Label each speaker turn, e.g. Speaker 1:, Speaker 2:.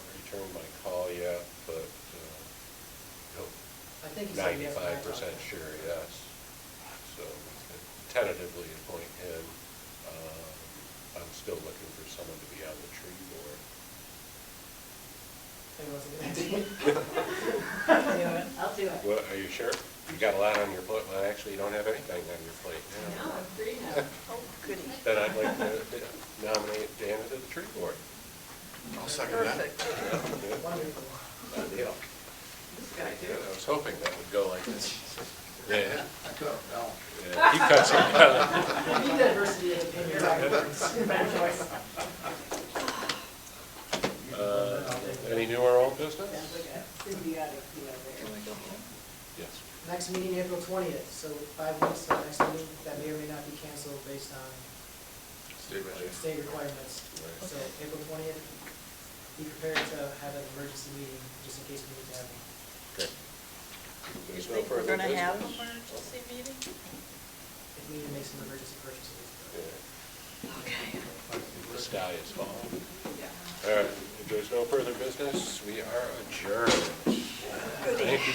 Speaker 1: uh, ninety-five percent sure, yes. So we could tentatively appoint him. Uh, I'm still looking for someone to be on the tree board.
Speaker 2: I'll do it.
Speaker 1: What, are you sure? You got a lot on your plate, well, actually, you don't have anything on your plate now.
Speaker 2: No, I'm free now.
Speaker 3: Oh, goody.
Speaker 1: Then I'd like to nominate Dan to the tree board.
Speaker 4: I'll second that.
Speaker 1: Wonderful. Deal.
Speaker 2: This guy
Speaker 1: Yeah,
Speaker 2: do
Speaker 1: I
Speaker 2: it.
Speaker 1: was hoping that would go like this. Yeah,
Speaker 4: No.
Speaker 1: yeah, he cuts it down.
Speaker 2: I need diversity of opinion. Bad choice.
Speaker 1: Uh, Any new or old business? Yes.
Speaker 5: Next meeting, April twentieth, so five weeks till next meeting, that may or may not be canceled based on
Speaker 4: State budget.
Speaker 5: state requirements.
Speaker 1: Right.
Speaker 5: So April twentieth, be prepared to have an emergency meeting, just in case we need to have one.
Speaker 1: Okay.
Speaker 3: You
Speaker 1: There's no
Speaker 3: think we're
Speaker 1: further
Speaker 3: gonna have an
Speaker 1: business?
Speaker 3: emergency meeting?
Speaker 5: If we need to make some emergency purchases.
Speaker 1: Yeah,
Speaker 3: Okay.
Speaker 1: The sky is falling.
Speaker 3: Yeah.
Speaker 1: All right, if there's no further business, we are adjourned. Thank you.